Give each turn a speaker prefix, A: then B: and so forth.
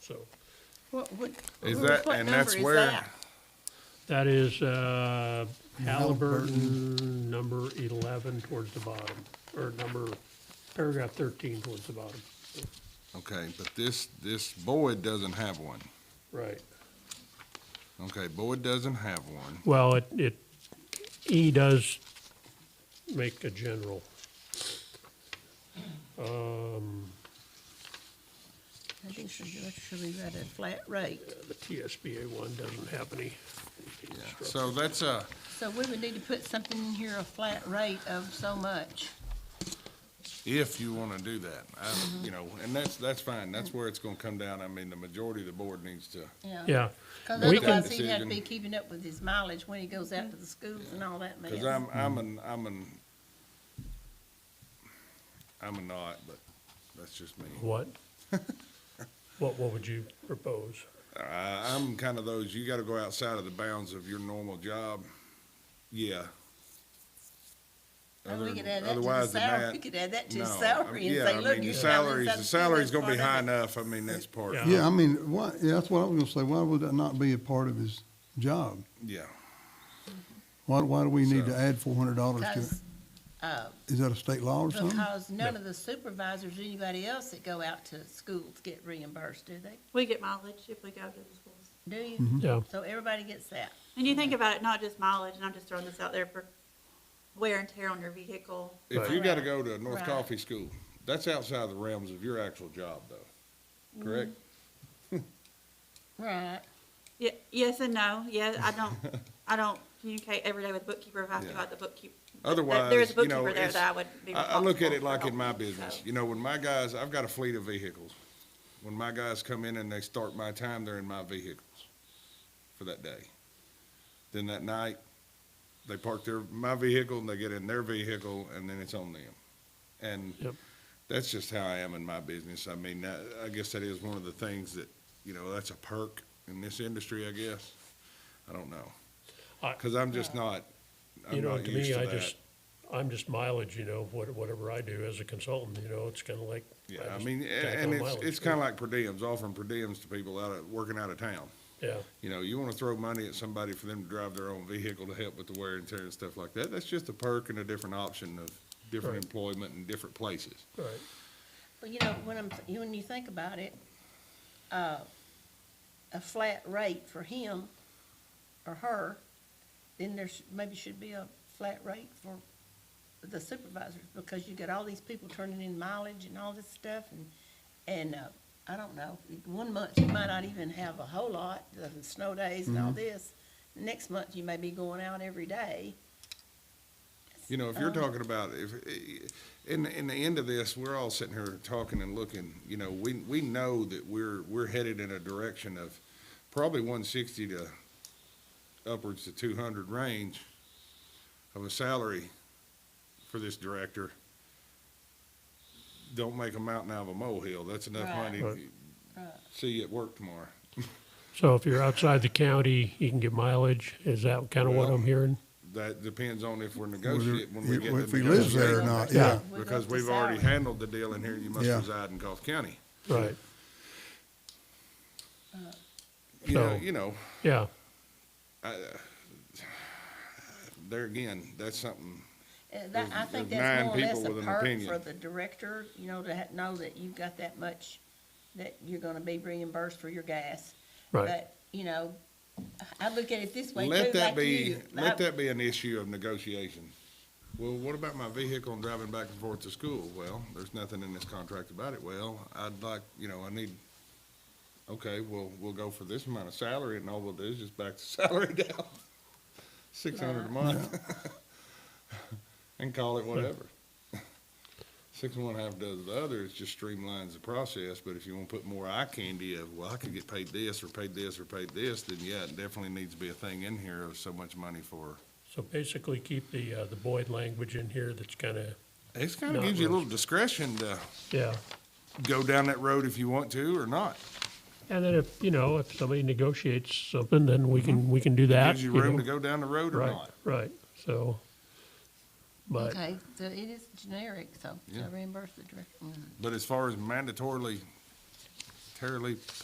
A: so
B: What, what?
C: Is
B: who-
C: that,
B: what
C: and
B: number
C: that's
B: is
C: where,
B: that?
A: that is uh, Halliburton, number 11 towards the bottom, or number, paragraph 13 towards the bottom.
C: okay, but this, this board doesn't have one.
A: Right.
C: Okay, board doesn't have one.
A: Well, it, it, E does make a general. Um,
B: I think should, be- should be read at flat rate.
A: The TSBA one doesn't have any.
C: Yeah, so that's a,
B: So we would need to put something in here, a flat rate of so much.
C: if you wanna do that, I, you know, and that's, that's fine, that's where it's gonna come down, I mean, the majority of the board needs to,
A: Yeah,
B: Because
A: We can-
B: otherwise he'd have to be
C: Decision.
B: keeping up with his mileage when he goes out to the schools and all that mess.
C: cause I'm, I'm an, I'm an, I'm a not, but that's just me.
A: what? What, what would you propose?
C: I, I'm kind of those, you gotta go outside of the bounds of your normal job, yeah.
B: And we
C: Other-
B: could add that to the
C: otherwise than
B: salary,
C: that,
B: we could add that to his
C: no. I
B: salary
C: mean,
B: and
C: yeah, I
B: say,
C: mean,
B: look.
C: The
B: you're
C: salaries,
B: covering
C: the
B: something,
C: salary's
B: that's
C: gonna be high
B: part of it."
C: enough, I mean, that's part,
A: Yeah.
D: Yeah, I mean, why, yeah, that's what I was gonna say. Why would that not be a part of his job?
C: yeah.
D: Why, why do we need to
C: So-
D: add four hundred dollars to
B: Because, uh,
D: it? Is that a state law or something?
B: because none of the supervisors, or anybody else that go out to schools get reimbursed, do they?
E: We get mileage if we go to the schools.
B: Do you?
A: Yeah,
B: So everybody gets that.
E: And you
C: Mm-hmm.
E: think about it, not just mileage, and I'm just throwing this out there for wear and tear on your vehicle.
C: If
A: Right.
C: you gotta go to a North
B: Right.
C: Coffee School, that's outside the realms of your actual job though,
B: Mm-hmm.
C: correct?
B: Right.
E: Ye- yes and no, yeah, I don't, I don't communicate every day with bookkeeper if I have to
C: Yeah.
E: go out the bookkeep.
C: Otherwise,
E: There is a
C: you know,
E: bookkeeper there
C: it's-
E: that I would be
C: I, I look at it
E: responsible
C: like
E: for
C: in my
E: helping,
C: business,
E: so.
C: you know, when my guys, I've got a fleet of vehicles. When my guys come in and they start my time, they're in my vehicles for that day. Then that night, they park their, my vehicle and they get in their vehicle and then it's on them. And
A: Yep.
C: that's just how I am in my business. I mean, I, I guess that is one of the things that, you know, that's a perk in this industry, I guess. I don't know.
A: I-
C: Cause I'm just not,
A: you
C: I'm
A: know,
C: not
A: to
C: used
A: me,
C: to
A: I
C: that.
A: just, I'm just mileage, you know, what- whatever I do as a consultant, you know, it's kind of like.
C: Yeah, I
A: just
C: mean, a-
A: tack
C: and
A: on
C: it's,
A: mileage
C: it's
A: to it.
C: kinda like per diems, offering per diems to people out of, working out of town.
A: Yeah.
C: You know, you wanna throw money at somebody for them to drive their own vehicle to help with the wear and tear and stuff like that, that's just a perk and a different option of different
A: Right.
C: employment and different places.
A: Right,
B: Well, you know, when I'm, you- when you think about it, uh, a flat rate for him or her, then there's, maybe should be a flat rate for the supervisors, because you got all these people turning in mileage and all this stuff, and, and, uh, I don't know, one month you might not even have a whole lot, the snow days and all this. Next month you may be going out every day.
C: You know, if
D: Oh.
C: you're talking about, if, eh, in, in the end of this, we're all sitting here talking and looking, you know, we, we know that we're, we're headed in a direction of probably one sixty to upwards to two hundred range of a salary for this director. Don't make a mountain out of a molehill, that's enough
B: Right.
C: money,
A: Right.
C: see you at work tomorrow.
A: so if you're outside the county, you can get mileage, is that kind of what
C: Well-
A: I'm hearing?
C: That depends on if we're
D: Whether-
C: negotiating, when we get to
D: If he lives
C: negotiate.
D: there or not, yeah.
B: We go
C: Because
B: up to
C: we've already
B: salary.
C: handled the deal in here, you must
D: Yeah.
C: reside in Gulf County.
A: Right,
C: You know,
A: So-
C: you know,
A: yeah,
C: there again, that's something,
B: Uh, That, I
C: There's-
B: think
C: there's
B: that's
C: nine
B: more or less
C: people
B: a
C: with an
B: perk for
C: opinion.
B: the director, you know, to ha- know that you've got that much, that you're gonna be reimbursed for your gas.
A: right,
B: But, you know, I look at it this way
C: let
B: too,
C: that
B: like
C: be,
B: you.
C: let
B: I-
C: that be an issue of negotiation. Well, what about my vehicle and driving back and forth to school? Well, there's nothing in this contract about it. Well, I'd like, you know, I need, okay, well, we'll go for this amount of salary and all we'll do is just back the salary down. Six hundred a month. And call it whatever. Six and one half does the other, it just streamlines the process, but if you wanna put more eye candy of, well, I could get paid this, or paid this, or paid this, then yeah, it definitely needs to be a thing in here of so much money for.
A: so basically keep the, uh, the Boyd language in here that's kind of,
C: It's kinda
A: Not
C: gives you a
A: really.
C: little discretion to
A: yeah.
C: go down that road if you want to or not.
A: And then if, you know, if somebody negotiates something, then we can, we can do that.
C: Gives you room
A: know.
C: to go down the road or
A: Right,
C: not.
A: right, so, but,
B: Okay, so it is generic, so, so
C: Yeah.
B: reimburse the director. Mm.
C: But as far as mandatorily, terribly